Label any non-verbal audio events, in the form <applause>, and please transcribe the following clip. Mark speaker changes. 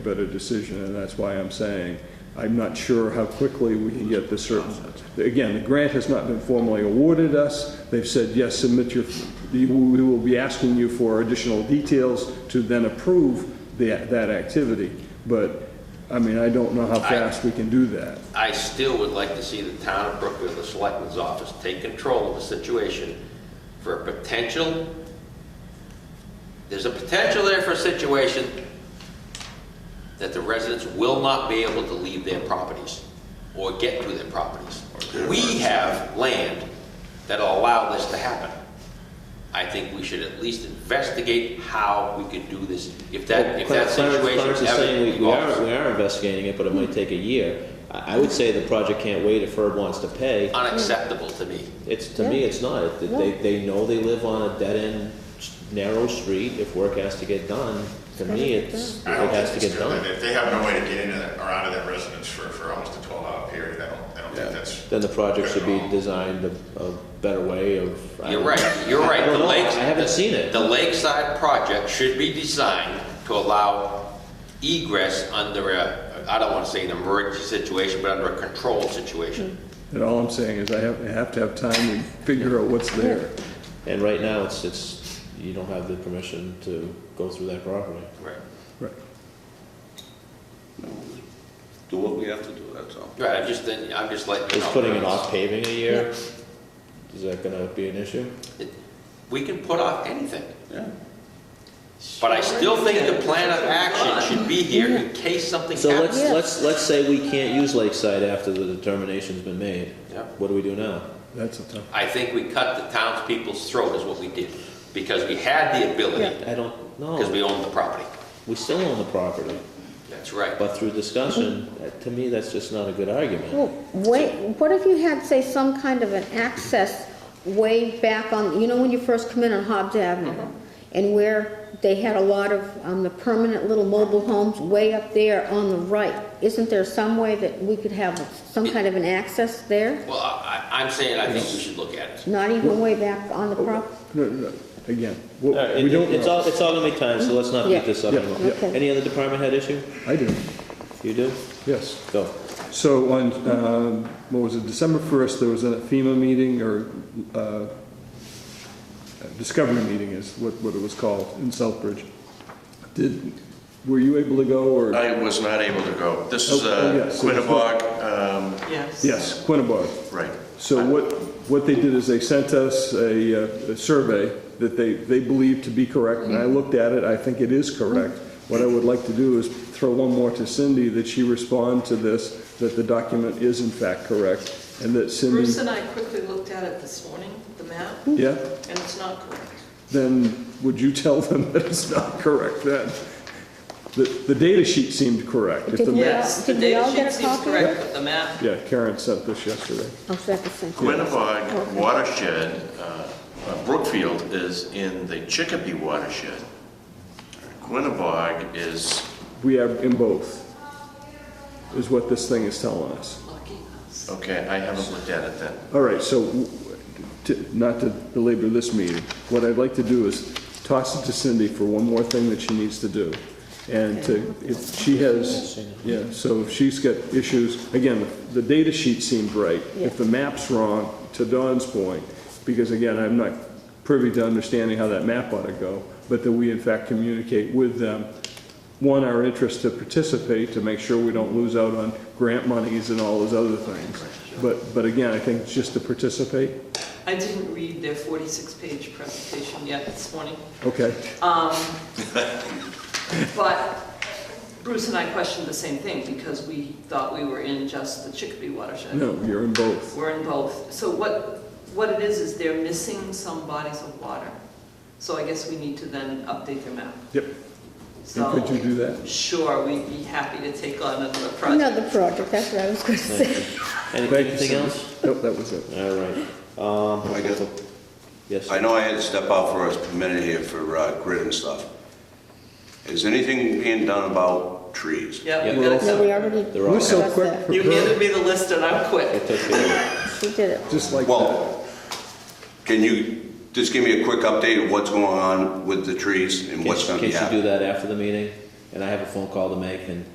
Speaker 1: better decision, and that's why I'm saying, I'm not sure how quickly we can get this certain. Again, the grant has not been formally awarded us. They've said, yes, submit your, we will be asking you for additional details to then approve that, that activity. But, I mean, I don't know how fast we can do that.
Speaker 2: I still would like to see the town of Brookfield, the selectman's office, take control of the situation for a potential, there's a potential there for a situation that the residents will not be able to leave their properties or get to their properties. We have land that'll allow this to happen. I think we should at least investigate how we could do this, if that, if that
Speaker 3: Clarence- Clarence-
Speaker 2: situation
Speaker 3: Clarence
Speaker 2: ever
Speaker 3: is saying
Speaker 2: evolves.
Speaker 3: we- we are, we are investigating it, but it might take a year. I, I would say the project can't wait if Herb wants to pay.
Speaker 2: Unacceptable to me.
Speaker 3: It's, to me, it's not. It- They, they know they live on a dead-end, s- narrow street. If work has to get done, to me, it's, it
Speaker 4: I don't
Speaker 3: has
Speaker 4: think
Speaker 3: to
Speaker 4: it's
Speaker 3: get
Speaker 4: good,
Speaker 3: done.
Speaker 4: if they have no way to get into that, or out of that residence for, for almost a twelve hour period, I don't, I don't think that's.
Speaker 3: Then the project should be
Speaker 4: good at all.
Speaker 3: designed a, a better way of. I
Speaker 2: You're
Speaker 3: don't-
Speaker 2: right, you're right.
Speaker 3: I
Speaker 2: The
Speaker 3: don't know. I
Speaker 2: lakes-
Speaker 3: haven't
Speaker 2: the-
Speaker 3: seen it.
Speaker 2: The lakeside project should be designed to allow egress under a, I don't want to say an emergency situation, but under a controlled situation.
Speaker 1: And all I'm saying is I have, I have to have time to figure out what's there.
Speaker 3: And right now, it's, it's, you don't have the permission to go through that property.
Speaker 2: Right,
Speaker 1: Right.
Speaker 5: Do what we have to do, that's all.
Speaker 2: Right, I'm just, then- I'm just letting you
Speaker 3: Is
Speaker 2: know.
Speaker 3: putting it off paving a year, is that gonna be an issue?
Speaker 2: It- We can put off anything,
Speaker 5: Yeah.
Speaker 2: but I still think the plan of action should be here in case something
Speaker 3: So let's,
Speaker 2: happens.
Speaker 6: Yeah.
Speaker 3: let's, let's say we can't use Lakeside after the determination's been made.
Speaker 2: Yeah.
Speaker 3: What do we do now?
Speaker 1: That's a tough,
Speaker 2: I think we cut the townspeople's throat is what we did, because we had the ability,
Speaker 3: I don't
Speaker 2: because
Speaker 3: know.
Speaker 2: we owned the property.
Speaker 3: We still own the property,
Speaker 2: That's right.
Speaker 3: but through discussion, that- to me, that's just not a good argument.
Speaker 6: Well, wait, what if you had, say, some kind of an access way back on, you know, when you first come in on Hobbs Avenue? And where they had a lot of, um, the permanent little mobile homes way up there on the right? Isn't there some way that we could have some kind of an access there?
Speaker 2: Well, I, I- I'm saying I think we should look at it.
Speaker 6: Not even way back on the prop? oh,
Speaker 1: no, no, no. again, what-
Speaker 3: All right,
Speaker 1: we
Speaker 3: Uh, it-
Speaker 1: don't
Speaker 3: It's all,
Speaker 1: know.
Speaker 3: it's all gonna be time, so let's not
Speaker 6: Yeah.
Speaker 3: beat this up
Speaker 1: Yeah,
Speaker 3: anymore.
Speaker 1: yeah.
Speaker 6: Okay.
Speaker 3: Any other department head issue?
Speaker 1: I do,
Speaker 3: You do?
Speaker 1: yes.
Speaker 3: Go.
Speaker 1: So on, um, what was it, December 1st, there was a FEMA meeting or uh, discovery meeting is what what it was called in Southbridge. Did, were you able to go or?
Speaker 4: I was not able to go. This is
Speaker 1: Oh, oh,
Speaker 4: uh,
Speaker 1: yes.
Speaker 4: Quinnebog, um,
Speaker 7: Yes.
Speaker 1: Yes, Quinnebog.
Speaker 4: right.
Speaker 1: So what, what they did is they sent us a, uh, a survey that they, they believed to be correct, and I looked at it, I think it is correct. What I would like to do is throw one more to Cindy, that she respond to this, that the document is in fact correct, and that Cindy,
Speaker 7: Bruce and I quickly looked at it this morning, the map,
Speaker 1: yeah?
Speaker 7: and it's not correct.
Speaker 1: then would you tell them that it's not correct then? The, the data sheet seemed correct. If the
Speaker 6: Did we
Speaker 1: ma-
Speaker 6: all-
Speaker 7: Yes, the
Speaker 6: did we
Speaker 7: data
Speaker 6: all get
Speaker 7: sheet
Speaker 6: a
Speaker 7: seems
Speaker 6: copy?
Speaker 7: correct, but the map,
Speaker 1: Yeah, Karen sent this yesterday.
Speaker 6: Oh, is that the same?
Speaker 4: Quinnebog watershed, uh, uh, Brookfield is in the Chicopee watershed. Quinnebog is,
Speaker 1: We have in both, is what this thing is telling us.
Speaker 7: lucky us.
Speaker 4: okay, I haven't looked at it then.
Speaker 1: All right, so, w- to- not to belabor this meeting, what I'd like to do is toss it to Cindy for one more thing that she needs to do. And to, if she has, yeah, so if she's got issues, again, the data sheet seemed right. If the map's wrong, to Don's point, because again, I'm not privy to understanding how that map ought to go, but that we in fact communicate with them, one, our interest to participate, to make sure we don't lose out on grant monies and all those other things. But, but again, I think just to participate,
Speaker 7: I didn't read their 46-page presentation yet this morning,
Speaker 1: okay,
Speaker 7: but Bruce and I questioned the same thing because we thought we were in just the Chicopee watershed.
Speaker 1: no, you're in both.
Speaker 7: We're in both. So what, what it is, is they're missing some bodies of water. So I guess we need to then update their map.
Speaker 1: Yep,
Speaker 7: So.
Speaker 1: and could you do that?
Speaker 7: Sure, we'd be happy to take on another project.
Speaker 6: Another project, that's what I was
Speaker 3: <laughs>
Speaker 6: gonna say.
Speaker 3: Any-
Speaker 1: Thank you,
Speaker 3: Anything
Speaker 1: Cindy.
Speaker 3: else?
Speaker 1: Nope, that was it.
Speaker 3: All right. Um,
Speaker 5: I guess-
Speaker 3: yes.
Speaker 5: I know I had to step out for a minute here for uh, grid and stuff. Is anything being done about trees?
Speaker 7: Yep,
Speaker 3: Yeah.
Speaker 7: you got it.
Speaker 6: No, we
Speaker 7: covered.
Speaker 6: already
Speaker 3: They're all-
Speaker 1: We're so
Speaker 6: discussed
Speaker 1: quick
Speaker 6: that.
Speaker 1: for
Speaker 7: You
Speaker 1: her,
Speaker 7: handed me the list and I'm
Speaker 3: I
Speaker 7: quick.
Speaker 3: took care of it.
Speaker 6: She did it.
Speaker 1: just like that.
Speaker 5: Well, can you just give me a quick update of what's going on with the trees and what's
Speaker 3: Can
Speaker 5: gonna be
Speaker 3: can she do
Speaker 5: happening?
Speaker 3: that after the meeting? and I have a phone call to make, and